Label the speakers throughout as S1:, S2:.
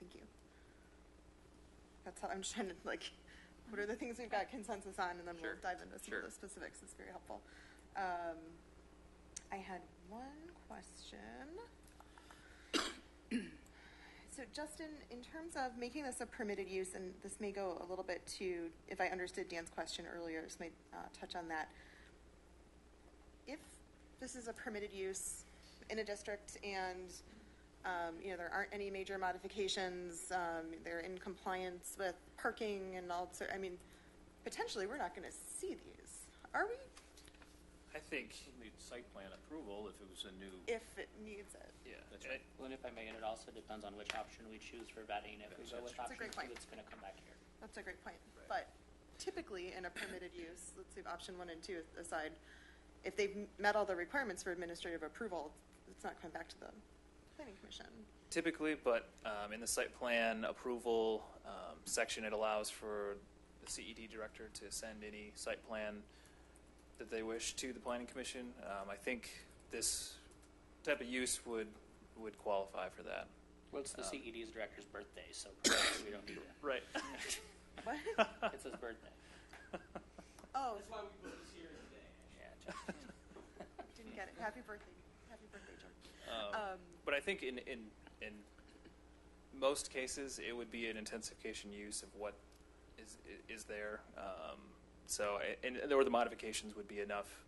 S1: Thank you. That's how I'm just trying to like, what are the things we've got consensus on, and then
S2: Sure.
S1: we'll dive into some
S2: Sure.
S1: of the specifics. It's very helpful. Um, I had one question. So Justin, in terms of making this a permitted use, and this may go a little bit to, if I understood Dan's question earlier, this may uh, touch on that. If this is a permitted use in a district and, um, you know, there aren't any major modifications, um, they're in compliance with parking and all, so, I mean, potentially, we're not going to see these, are we?
S2: I think need site plan approval if it was a new.
S1: If it needs it.
S2: Yeah.
S3: That's
S4: eh,
S3: right. Well, and if I may, and it also depends on which option we choose for vetting. If we go with
S1: That's a
S3: option
S1: great point.
S3: two, it's going to come back here.
S1: That's a great point.
S2: Right.
S1: But typically, in a permitted use, let's leave option one and two aside, if they've met all the requirements for administrative approval, it's not coming back to the planning commission.
S4: Typically, but um, in the site plan approval um, section, it allows for the CED director to send any site plan that they wish to the planning commission. Um, I think this type of use would would qualify for that.
S3: Well, it's the
S4: Um,
S3: CED's director's birthday, so perhaps we don't need it.
S4: Right.
S1: What?
S3: It's his birthday.
S1: Oh,
S5: That's why we put this here today.
S3: Yeah, Justin.
S1: didn't get it. Happy birthday. Happy birthday, George. Um,
S4: Um, but I think in, in in most cases, it would be an intensification use of what is is there. Um, so, I- and or the modifications would be enough.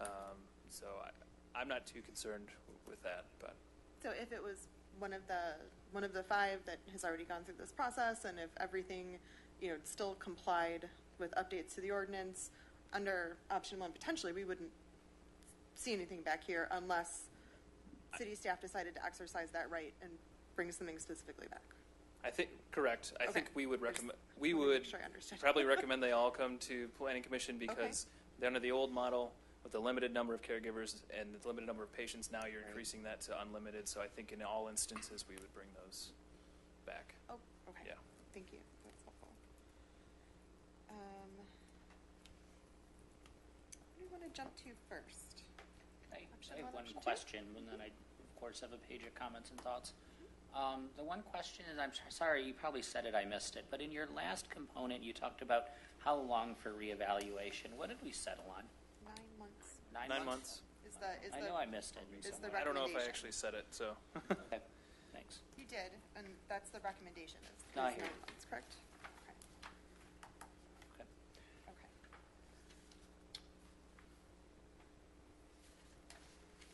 S4: Um, so, I, I'm not too concerned with that. But
S1: So if it was one of the, one of the five that has already gone through this process, and if everything, you know, still complied with updates to the ordinance, under option one, potentially, we wouldn't see anything back here unless city staff decided to exercise that right and bring something specifically back.
S4: I think correct. I
S1: Okay.
S4: think we would
S1: I just
S4: recommend. We
S1: wanna make
S4: would
S1: sure I understood.
S4: probably recommend they all come to planning commission because they're under the old model with the limited number of caregivers and the limited number of patients. Now you're
S3: Right.
S4: increasing that to unlimited. So I think in all instances, we would bring those back.
S1: Oh, okay.
S4: Yeah.
S1: Thank you. That's helpful. Um, What do you want to jump to first?
S3: I
S1: Option
S3: I
S1: one,
S3: have one
S1: option two.
S3: question, and then I, of course, have a page of comments and thoughts. Um, The one question is, I'm s- sorry, you probably said it, I missed it, but in your last component, you talked about how long for reevaluation. What did we settle on?
S1: Nine months
S4: Nine months.
S1: is the, is the.
S3: I know I missed it.
S1: is the
S3: somewhere.
S1: rec-
S4: I don't know if I
S1: recommendation.
S4: actually said it, so.
S3: Okay, thanks.
S1: You did, and that's the recommendation, is
S3: No, I
S1: is
S3: hear
S1: nine
S3: you.
S1: months, correct? Okay,
S3: Okay.
S1: okay.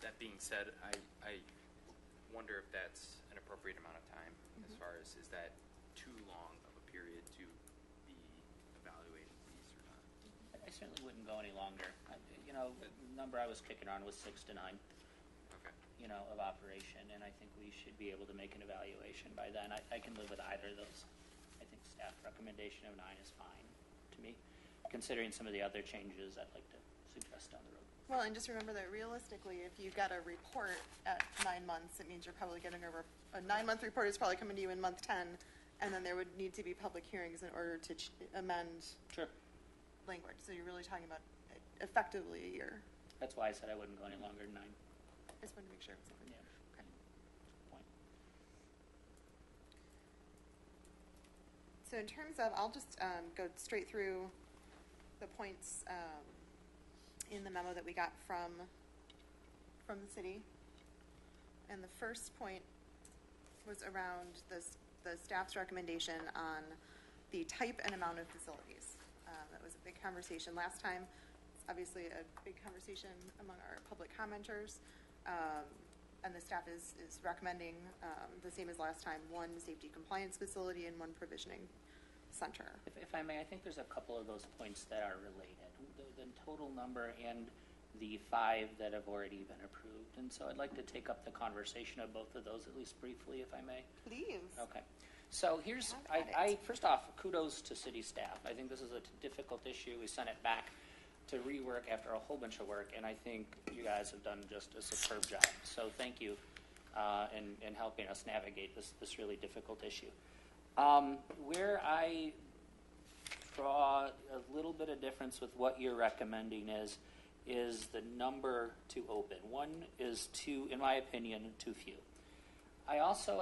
S5: That being said, I, I wonder if that's an appropriate amount of time as far as, is that too long of a period to be evaluating these or not?
S3: I certainly wouldn't go any longer. I- You know, the number I was kicking around was six to nine,
S5: Okay.
S3: you know, of operation, and I think we should be able to make an evaluation by then. I, I can live with either of those. I think staff recommendation of nine is fine to me, considering some of the other changes I'd like to suggest down the road.
S1: Well, and just remember that realistically, if you got a report at nine months, it means you're probably getting a, re- a nine-month report is probably coming to you in month ten, and then there would need to be public hearings in order to ch- amend
S3: Sure.
S1: language, so you're really talking about effectively a year.
S3: That's why I said I wouldn't go any longer than nine.
S1: I just wanted to make sure. it was something.
S3: Yeah.
S1: Okay.
S3: Point.
S1: So in terms of, I'll just um, go straight through the points um, in the memo that we got from, from the city. And the first point was around this, the staff's recommendation on the type and amount of facilities. Um, That was a big conversation last time. It's obviously a big conversation among our public commenters. Um, And the staff is, is recommending, um, the same as last time, one safety compliance facility and one provisioning center.
S3: If, if I may, I think there's a couple of those points that are related, the, the total number and the five that have already been approved. And so I'd like to take up the conversation of both of those, at least briefly, if I may.
S1: Please.
S3: Okay. So here's,
S1: Have
S3: I,
S1: at
S3: I,
S1: it.
S3: first off, kudos to city staff. I think this is a t- difficult issue. We sent it back to rework after a whole bunch of work, and I think you guys have done just a superb job. So thank you uh, in, in helping us navigate this, this really difficult issue. Um, where I draw a little bit of difference with what you're recommending is, is the number to open. One is too, in my opinion, too few. I also